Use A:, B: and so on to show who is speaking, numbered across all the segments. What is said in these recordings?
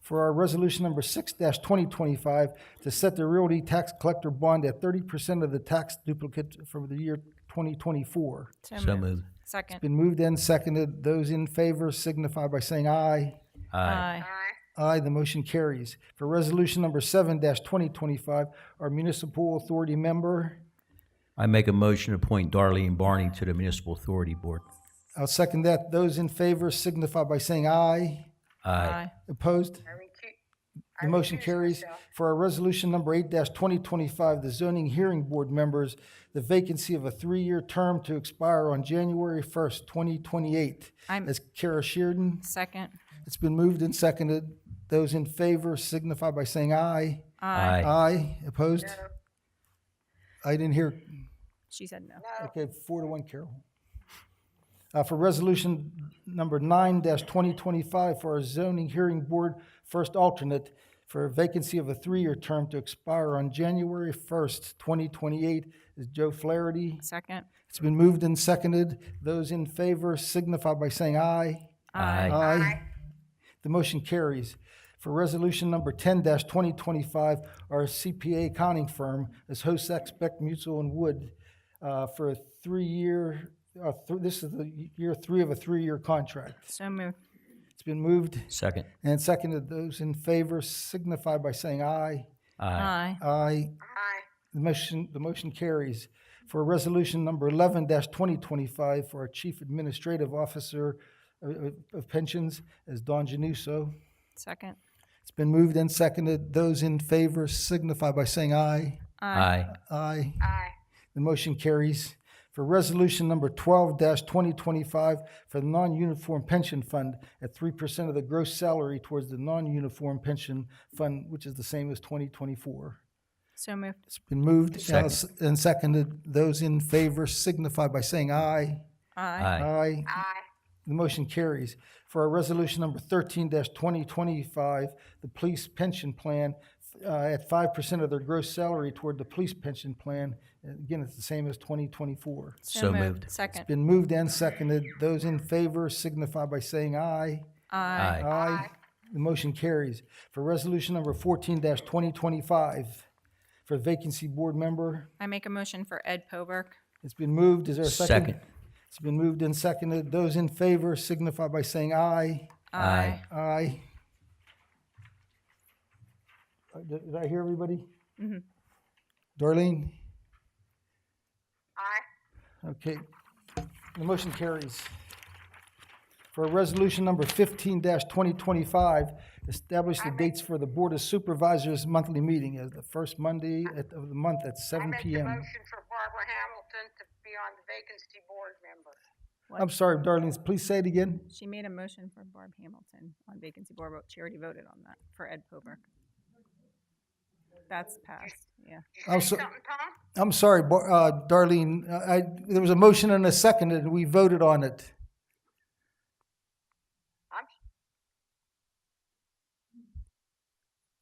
A: for our resolution number six twenty twenty-five to set the realty tax collector bond at thirty percent of the tax duplicate for the year twenty twenty-four.
B: So moved.
C: Second.
A: Been moved and seconded. Those in favor signify by saying aye.
C: Aye.
A: Aye, the motion carries. For resolution number seven twenty twenty-five, our municipal authority member,
B: I make a motion to appoint Darlene Barney to the Municipal Authority Board.
A: I'll second that. Those in favor signify by saying aye.
B: Aye.
A: Opposed? The motion carries. For our resolution number eight twenty twenty-five, the zoning hearing board members, the vacancy of a three-year term to expire on January first, twenty twenty-eight.
C: I'm-
A: That's Kara Sheardon.
C: Second.
A: It's been moved and seconded. Those in favor signify by saying aye.
B: Aye.
A: Aye. Opposed? I didn't hear.
C: She said no.
A: Okay, four to one, Carol. Uh, for resolution number nine twenty twenty-five for our zoning hearing board first alternate for a vacancy of a three-year term to expire on January first, twenty twenty-eight is Joe Flaherty.
C: Second.
A: It's been moved and seconded. Those in favor signify by saying aye.
B: Aye.
A: Aye. The motion carries. For resolution number ten twenty twenty-five, our CPA accounting firm is Hosex Beck Mutual and Wood uh, for a three-year, uh, th- this is the year three of a three-year contract.
C: So moved.
A: It's been moved
B: Second.
A: and seconded. Those in favor signify by saying aye.
B: Aye.
C: Aye.
A: Aye. The motion, the motion carries. For resolution number eleven twenty twenty-five for our Chief Administrative Officer uh, uh, of Pensions is Don Januso.
C: Second.
A: It's been moved and seconded. Those in favor signify by saying aye.
B: Aye.
A: Aye. Aye. The motion carries. For resolution number twelve twenty twenty-five for the non-uniform pension fund at three percent of the gross salary towards the non-uniform pension fund, which is the same as twenty twenty-four.
C: So moved.
A: It's been moved and s- and seconded. Those in favor signify by saying aye.
C: Aye.
B: Aye.
A: Aye. The motion carries. For our resolution number thirteen twenty twenty-five, the police pension plan, uh, at five percent of their gross salary toward the police pension plan. And Again, it's the same as twenty twenty-four.
B: So moved.
C: Second.
A: Been moved and seconded. Those in favor signify by saying aye.
C: Aye.
B: Aye.
A: Aye. The motion carries. For resolution number fourteen twenty twenty-five, for vacancy board member,
C: I make a motion for Ed Poberk.
A: it's been moved. Is there a
B: Second.
A: It's been moved and seconded. Those in favor signify by saying aye.
B: Aye.
A: Aye. Uh, Did did I hear everybody?
D: Mm-hmm.
A: Darlene? Aye. Okay, the motion carries. For Resolution Number fifteen twenty twenty-five, establish the dates for the Board of Supervisors' monthly meeting as the first Monday at- of the month at
D: I
A: seven
D: make
A: P
D: a
A: M.
D: motion for Barbara Hamilton to be on the vacancy board member.
A: I'm sorry, Darlene, please say it again.
C: She made a motion for Barb Hamilton on vacancy board, but she already voted on that for Ed Poberk. That's passed, yeah.
A: I'm
D: Say
A: Oh, so-
D: something, Tom?
A: I'm sorry, Bar- uh, Darlene, I, I- there was a motion and a second, and we voted on it.
D: I'm,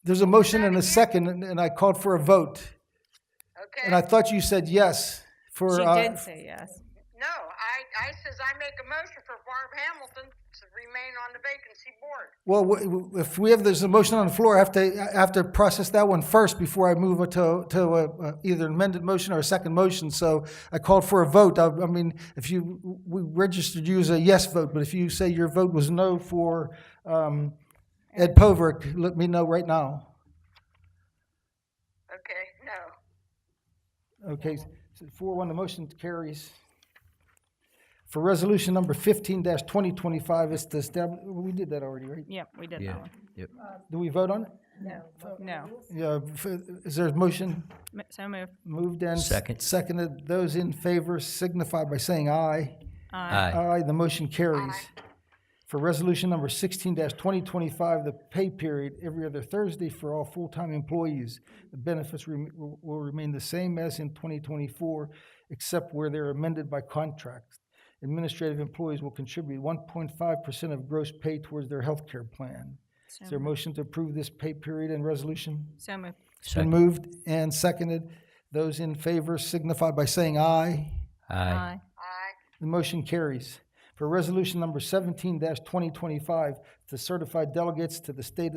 A: There's a motion and a second, and- and I called for a vote.
D: okay,
A: And I thought you said yes for.
C: She
A: uh,
C: did say yes.
D: no, I, I says I make a motion for Barb Hamilton to remain on the vacancy board.
A: Well, w- w- if we have, there's a motion on the floor, I have to, I have to process that one first before I move it to, to uh, uh, either an amended motion or a second motion. So I called for a vote. I I mean, if you, we registered you as a yes vote, but if you say your vote was no for um, Ed Poverk, let me know right now.
D: Okay, no.
A: Okay, so four one, the motion carries. For resolution number fifteen twenty twenty-five, it's to establish, we did that already, right?
C: Yep, we did
B: Yeah.
C: that one.
B: Yep.
A: Do we vote on it?
C: No,
A: Yeah, f- is there a motion
C: M- so moved.
A: moved and?
B: Second.
A: Seconded, those in favor signify by saying aye.
B: Aye.
A: Aye, the motion carries. For resolution number sixteen twenty twenty-five, the pay period every other Thursday for all full-time employees. The benefits rem- will will remain the same as in twenty twenty-four, except where they're amended by contracts. Administrative employees will contribute one point five percent of gross pay towards their health care plan. Is there a motion to approve this pay period and resolution?
C: So moved.
A: It's been moved and seconded. Those in favor signify by saying aye.
B: Aye.
D: I,
A: The motion carries. For resolution number seventeen twenty twenty-five, to certify delegates to the state